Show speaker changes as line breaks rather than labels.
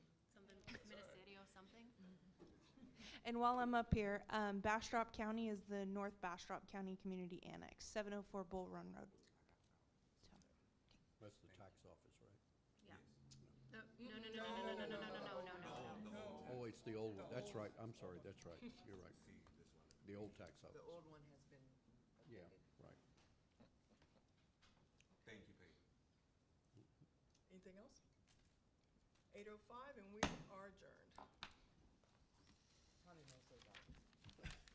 And while I'm up here, um, Bastrop County is the North Bastrop County Community Annex, 704 Bull Run Road. So,
That's the tax office, right?
Yeah. No, no, no, no, no, no, no, no, no, no, no, no, no, no.
Oh, it's the old one. That's right. I'm sorry. That's right. You're right. The old tax
The
office.
old one has been
Yeah,
updated.
right.
Thank you, Pete.
Anything else? Eight oh five, and we are adjourned.